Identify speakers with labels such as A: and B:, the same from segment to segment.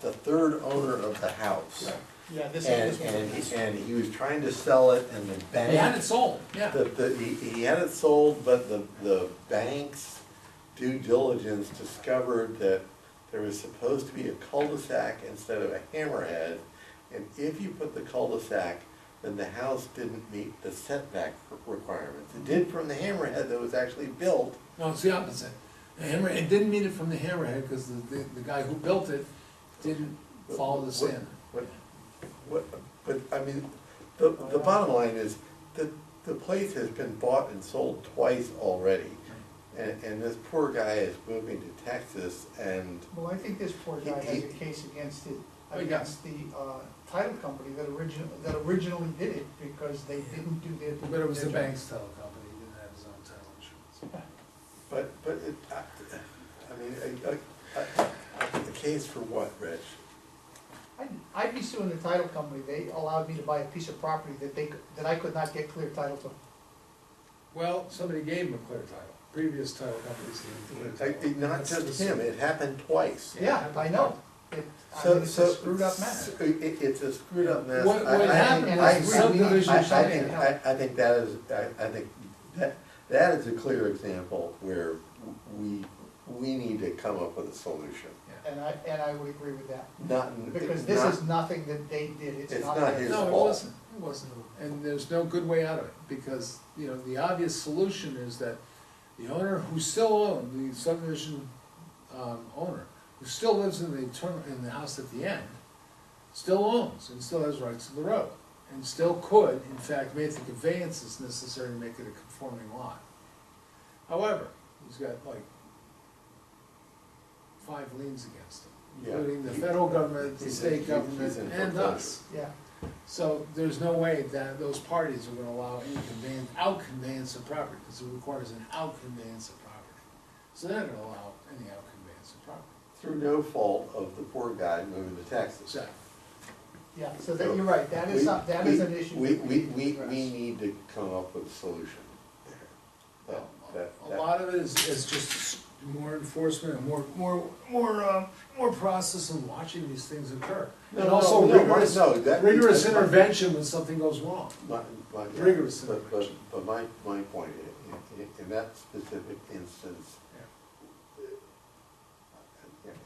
A: the third owner of the house.
B: Yeah, this one,
A: And,
B: this
A: and,
B: one.
A: and he was trying to sell it and the
C: They had it
A: bank,
C: sold, yeah.
A: the, the, he, he had it sold, but the, the bank's due diligence discovered that there was supposed to be a cul-de-sac instead of a hammerhead. And if you put the cul-de-sac, then the house didn't meet the setback requirements. It did from the hammerhead that was actually built,
C: No, it's the opposite. The hammer, it didn't mean it from the hammerhead, because the, the, the guy who built it didn't follow the standard.
A: What, what, but, I mean, the, the bottom line is, the, the place has been bought and sold twice already. And, and this poor guy is moving to Texas and,
B: Well, I think this poor guy has a case against it,
C: Oh,
B: against the uh, title company that originally, that originally did it because they didn't do their.
C: But it was the
B: their job.
C: bank's title company, he didn't have his own title insurance.
A: but, but it, I, I mean, a, a, a case for what, Rich?
B: I'd, I'd be suing the title company, they allowed me to buy a piece of property that they, could- that I could not get clear title to.
C: Well, somebody gave him a clear title, previous title companies gave him a clear
A: Like,
C: title.
A: it- Not
C: That's
A: just
C: the-
A: him, it happened twice.
B: Yeah, I know, it, I mean,
A: So,
B: it's
A: so.
B: a screwed up mess.
A: so it- it- it's a screwed up mess.
C: What-
A: I-
C: what
A: I-
C: happened
A: I-
B: was
A: I-
B: subdivision
A: I- I
B: shut
A: think-
B: down.
A: I, I think that is, I, I think that, that is a clear example where we, we need to come up with a solution.
C: Yeah.
B: And I, and I would agree with that,
A: Not, it's
B: because this is
A: not-
B: nothing that they did, it's
A: It's
B: not
A: not
B: their
A: his
C: No, it
A: fault.
C: wasn't, it wasn't, and there's no good way out of it, because, you know, the obvious solution is that the owner who still owned, the subdivision, um, owner, who still lives in the turn, in the house at the end, still owns and still has rights to the road, and still could, in fact, make the conveyances necessary to make it a conforming lot. However, he's got like five liens against him,
A: Yeah.
C: including the federal government, the
A: He's in-
C: state
A: he's
C: government,
A: in
C: and
A: foreclosure.
C: us.
B: Yeah,
C: So there's no way that those parties are gonna allow any conveyance, out conveyance of property, because it requires an out conveyance of property. So they're not gonna allow any out conveyance of property.
A: Through no fault of the poor guy moving to Texas.
C: So,
B: yeah, so that, you're right, that is, some- that is an issue.
A: We,
B: that
A: we,
B: need to
A: we,
B: address.
A: we need to come up with a solution.
C: a
A: That- that-
C: a lot of it is, is just more enforcement and more, more, more, uh, more process and watching these things occur.
A: No,
C: And
A: no,
C: also
A: no,
C: rigorous,
A: no, that-
C: rigorous intervention when something goes wrong.
A: My, my.
C: Rigorous
A: But, but,
C: intervention.
A: but my, my point, in, in, in that specific instance,
C: Yeah.
A: it,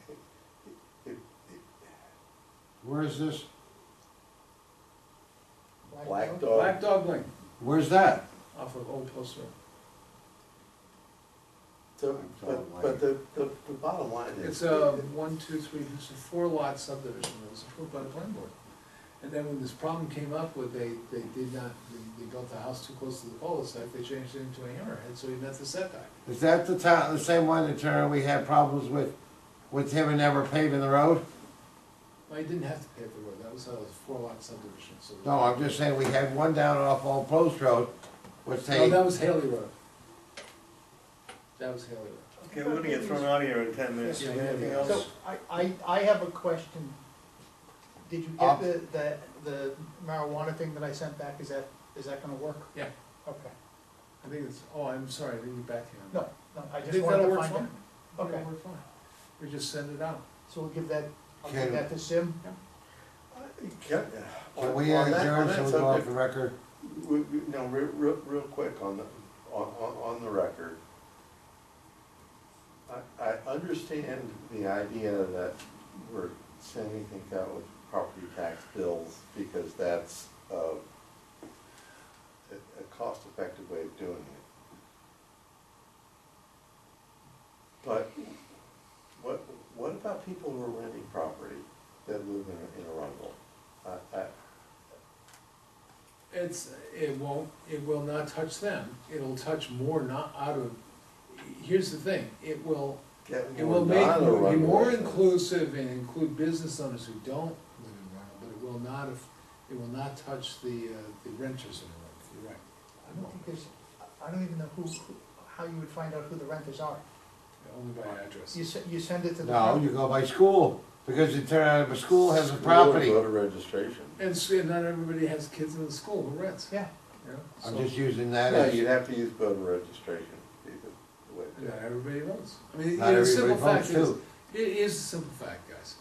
A: it, it,
D: Where's this,
B: Black
A: Black
B: Dog?
A: Dog.
C: Black Dog Lane
D: where's that?
C: off of Old Post Road.
A: so, but, but the, the, the bottom line is.
C: It's a
D: um,
C: one, two, three, it's a four lot subdivision that was approved by the planning board. And then when this problem came up with they, they did not, they, they built the house too close to the cul-de-sac, they changed it into a hammerhead, so he met the setback.
D: Is that the town, the same one that turned, we had problems with, with him and never paving the road?
C: Well, he didn't have to pave the road, that was a four lot subdivision, so.
D: No, I'm just saying, we had one down off Old Post Road, which
C: No,
D: they,
C: that was Haley Road. That was Haley Road.
E: Okay, we're gonna get thrown out of here in ten minutes,
C: Yeah.
E: anything
B: So,
E: else?
B: I, I, I have a question. Did you
D: Uh,
A: Um,
B: get the, the, the marijuana thing that I sent back, is that, is that gonna work?
C: Yeah.
B: Okay,
C: I think it's, oh, I'm sorry, I didn't get back to you on that.
B: no, no, I just
C: think
B: wanted
C: that'll
B: to
C: work
B: find out.
C: fine. I think
B: Okay.
C: it'll work fine. We just send it out.
B: So we'll give that, I'll
D: Can-
B: give that to Sim,
A: Can
D: can we adjourn so we go off the record?
A: We, we, no, real, real, real quick on the, on, on, on the record. I, I understand the idea that we're sending things out with property tax bills because that's, uh, a, a cost-effective way of doing it. But what, what about people who are renting property that live in, in Arundel? I, I,
C: It's, it won't, it will not touch them, it'll touch more not out of, here's the thing, it will,
A: Get
C: it will
A: more
C: make,
A: non-Arundel
C: be more
A: residents.
C: inclusive and include business owners who don't live in rental, but it will not, af- it will not touch the, uh, the renters in the rental, you're right.
B: I don't think there's, I don't even know who, who- how you would find out who the renters are.
C: Only by address.
B: You se- you send it to the.
D: No, you go by school, because it turned out if a school has a
A: School or
D: property.
A: Voter registration.
C: And, s- and not everybody has kids in the school who rents,
B: Yeah,
C: you know,
D: I'm
C: so-
D: just using that
A: No,
D: as,
A: you'd have to use voter registration. to be the- the way to do
C: Not
A: it.
C: everybody votes, I mean, you
D: not
C: know, the
D: everybody
C: simple fact is,
D: votes too.
C: it is a simple fact, guys,